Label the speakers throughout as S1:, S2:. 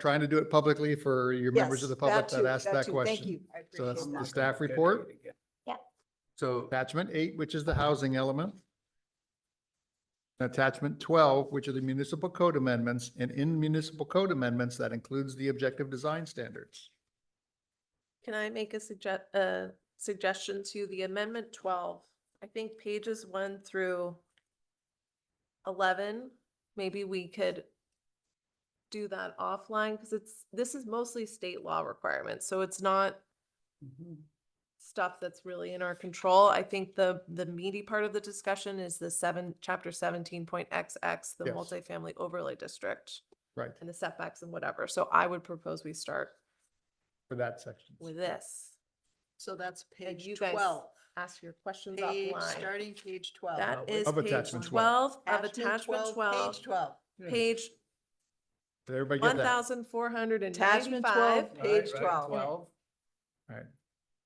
S1: trying to do it publicly for your members of
S2: Yes,
S1: the public that
S2: too,
S1: asked that
S2: too. Thank
S1: question.
S2: you. I
S1: So that's
S2: appreciate
S1: the
S2: that.
S1: staff report.
S3: So
S1: Attachment eight, which is the housing element. Attachment twelve, which are the municipal code amendments, and in municipal code amendments, that includes the objective design standards.
S4: Can I make a suggest, a suggestion to the amendment twelve? I think pages one through eleven, maybe we could do that offline, because it's, this is mostly state law requirements, so it's not stuff that's really in our control. I think the, the meaty part of the discussion is the seven, chapter seventeen point XX, the
S1: Yes.
S4: multifamily overlay district.
S1: Right.
S4: And the setbacks and whatever. So I would propose we start
S1: For that section.
S4: with this.
S2: So that's
S4: And
S2: page
S4: you guys
S2: twelve,
S4: ask your questions
S2: page,
S4: offline.
S2: starting page twelve.
S4: That is
S1: Of
S4: page
S1: attachment 12.
S4: twelve of
S2: Attachment
S4: Uh, attachment
S2: 12,
S4: twelve,
S2: Page twelve.
S4: page
S1: Did everybody get
S4: one
S1: that?
S4: thousand four hundred and
S2: Attachment twelve,
S4: ninety-five.
S2: page
S3: Right, right,
S2: twelve.
S1: All right.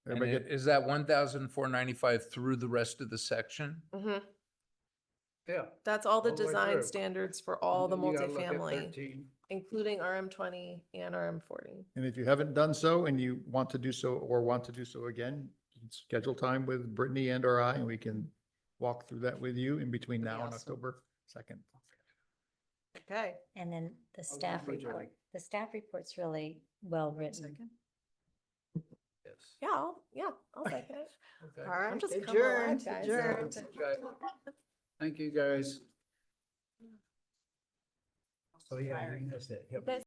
S3: and
S1: Everybody
S3: it-
S1: get,
S3: is that one thousand four ninety-five through the rest of the section?
S4: Mhm.
S5: Yeah.
S4: That's all the
S5: All the way
S4: design
S5: through.
S4: standards for all the
S5: You gotta look at
S4: multifamily,
S5: 13.
S4: including RM twenty and RM forty.
S1: and if you haven't done so and you want to do so or want to do so again, you can schedule time with Brittany and or I, and we can walk through that with you in between
S4: That'd be
S1: now and
S4: awesome.
S1: October second.
S4: Okay.
S6: And then the
S5: I'll
S6: staff
S5: read you
S6: report,
S5: like
S6: the staff report's really well written.
S5: this.
S4: Yeah, I'll- yeah, I'll second it.
S3: Okay.
S2: All right,
S4: just coming alive,
S2: adjourned,
S4: guys.
S2: adjourned.
S5: Okay.
S2: Oh,
S5: Thank you, guys. So, yeah, I think that's it. Yep.